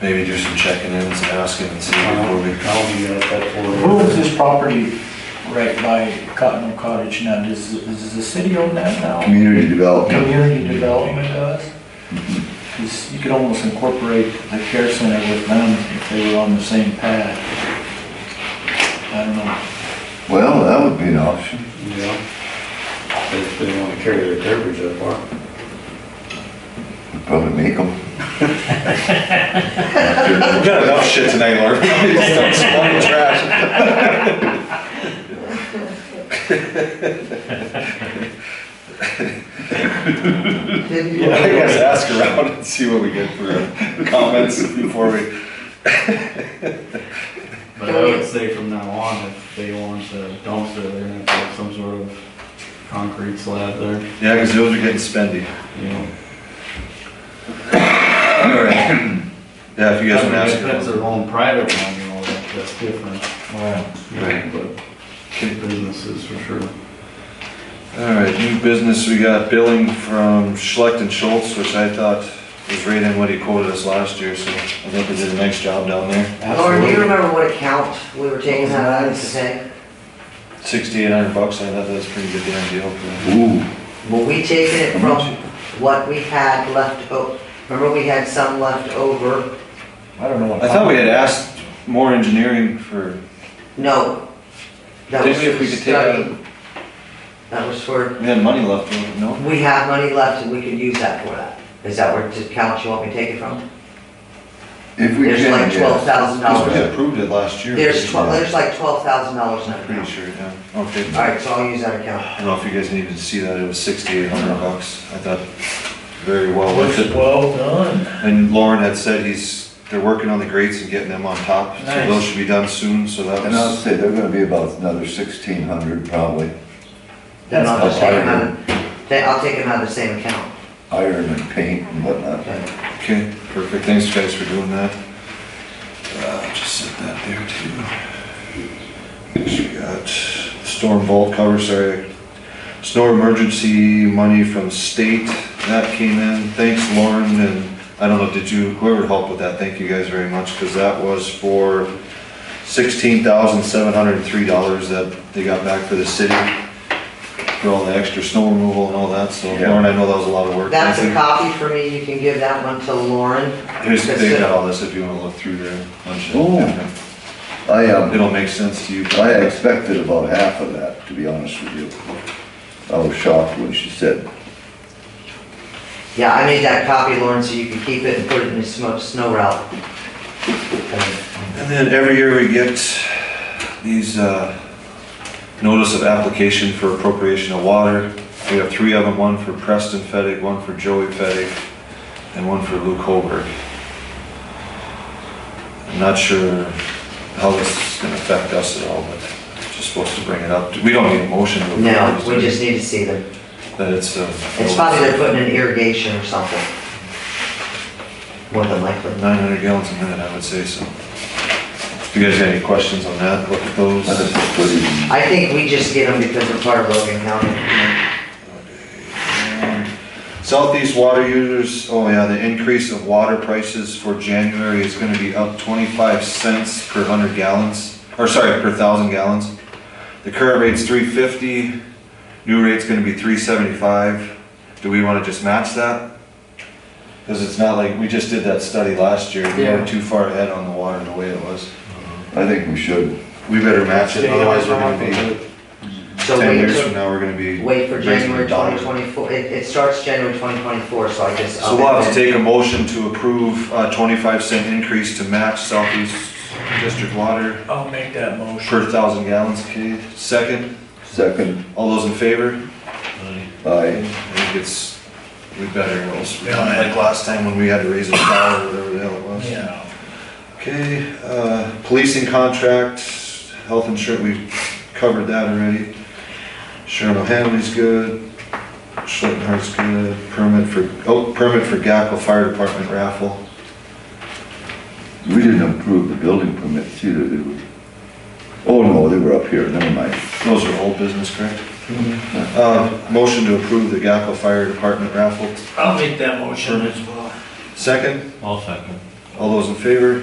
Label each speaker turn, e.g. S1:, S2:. S1: maybe do some checking in and some asking and see
S2: Uh-huh.
S1: before we.
S3: I'll be at that for
S4: Who owns this property right by Cottonwood Cottage now? Does, does the city own that now?
S5: Community development.
S4: Community development does? Because you could almost incorporate the care center with them if they were on the same path. I don't know.
S5: Well, that would be an option.
S3: Yeah. If they wanna carry their beverage up far.
S5: We'd Probably make them.
S1: We've got enough shit tonight, Lord. Stop smelling trash. Yeah, I guess ask around and see what we get for uh, comments before we.
S2: But I would say from now on, if they want a dumpster, they're gonna have to have some sort of concrete slab there,
S1: Yeah, because those are getting spendy.
S2: you know.
S1: Alright. Yeah, if you guys want to
S2: If
S1: ask.
S2: That's
S1: around.
S2: their own private one, you know, that- that's different, you know,
S1: Right.
S2: but businesses for sure.
S1: Alright, new business, we got billing from Schlecht and Schultz, which I thought was right in what he quoted us last year, so I think they did a nice job down there.
S6: Lauren, do you remember what account we were taking that out of today?
S1: Sixty-eight hundred bucks, I thought that was a pretty good damn deal for
S5: Ooh,
S6: Were we taking it
S5: How
S6: from what we had left, o- remember we had some left over?
S4: I don't know what.
S1: I thought we had asked more engineering for,
S6: No. That was
S1: Maybe if we
S6: for
S1: could take out-
S6: study. That was for,
S1: we had money left, over, no?
S6: we have money left and we could use that for that. Is that where the account you want me to take it from?
S5: if we can.
S6: There's like
S5: yes.
S6: twelve thousand
S1: Because we
S6: dollars.
S1: had approved it last year.
S6: There's twelve, there's like twelve thousand dollars in
S1: I'm
S6: that
S1: Pretty
S6: account.
S1: sure, yeah, okay.
S6: Alright, so I'll use that account.
S1: I don't know if you guys needed to see that, it was sixty-eight hundred bucks, I thought very well worth it.
S4: Well done.
S1: And Lauren had said he's, they're working on the grates and getting them on top, so
S4: Nice.
S1: those should be done soon, so that
S5: And uh, I'll
S1: was.
S5: say, they're gonna be about another sixteen hundred probably,
S6: Then I'll just take
S5: That's
S6: them out, of- then I'll take them out of the same account.
S5: iron and paint and whatnot.
S1: Okay, perfect, thanks guys for doing that. Uh, just set that there too. Next we got storm vault cover, sorry. Snow emergency money from state, that came in, thanks Lauren, and I don't know, did you, whoever helped with that, thank you guys very much, cause that was for sixteen thousand seven hundred and three dollars that they got back for the city. For all the extra snow removal and all that, so
S5: Yeah.
S1: Lauren, I know that was a lot of work.
S6: That's
S1: Thank
S6: a
S1: you.
S6: copy for me, you can give that one to Lauren.
S1: Here's, they've got all this if you wanna look through their bunch of,
S5: Oh. I, um,
S1: it'll make sense to you.
S5: I expected about half of that, to be honest with you. I was shocked when she said,
S6: Yeah, I made that copy, Lauren, so you can keep it and put it in the snow, snow route.
S1: And then every year we get these, uh, notice of application for appropriation of water. We have three of them, one for Preston Fettig, one for Joey Fettig, and one for Luke Holberg. I'm not sure how this is gonna affect us at all, but just supposed to bring it up. We don't need a motion. to approve
S6: No,
S1: this,
S6: we just need to see them.
S1: That it's, uh.
S6: It's probably they're putting in irrigation or something. More than likely.
S1: nine hundred gallons a minute, I would say so. If you guys got any questions on that, look at those.
S5: I just put it in
S6: I think we just get them because they're part of Logan County.
S1: Southeast water users, oh yeah, the increase of water prices for January is gonna be up twenty-five cents per hundred gallons, or sorry, per thousand gallons. The current rate's three fifty, new rate's gonna be three seventy-five. Do we wanna just match that? Cause it's not like, we just did that study last year, we
S4: Yeah.
S1: were too far ahead on the water the way it was.
S5: I think we should.
S1: We better match it, otherwise we're gonna be.
S6: So
S1: 10
S6: wait
S1: years from
S6: till,
S1: now, we're gonna be.
S6: wait for
S1: raising the
S6: January
S1: dollar.
S6: twenty twenty-four, it, it starts January twenty twenty-four, so I guess.
S1: So we'll have to take a motion to approve a twenty-five cent increase to match Southeast District Water
S4: I'll make that motion.
S1: per thousand gallons, okay? Second,
S5: Second,
S1: all those in favor? I
S5: I,
S1: think it's, we better, or else,
S4: Yeah.
S1: like last time when we had to raise a dollar, or whatever the hell it was.
S4: Yeah.
S1: Okay, uh, policing contract, health insurance, we covered that already. Sharon O'Hanley's good, Schlittenhardt's good, permit for, oh, permit for Gackel Fire Department raffle.
S5: we didn't approve the building permits either, did we? Oh, no, they were up here, never mind.
S1: Those are old business, correct? Uh, motion to approve the Gackel Fire Department raffle.
S4: I'll make that motion as well.
S1: Second,
S2: I'll second.
S1: All those in favor?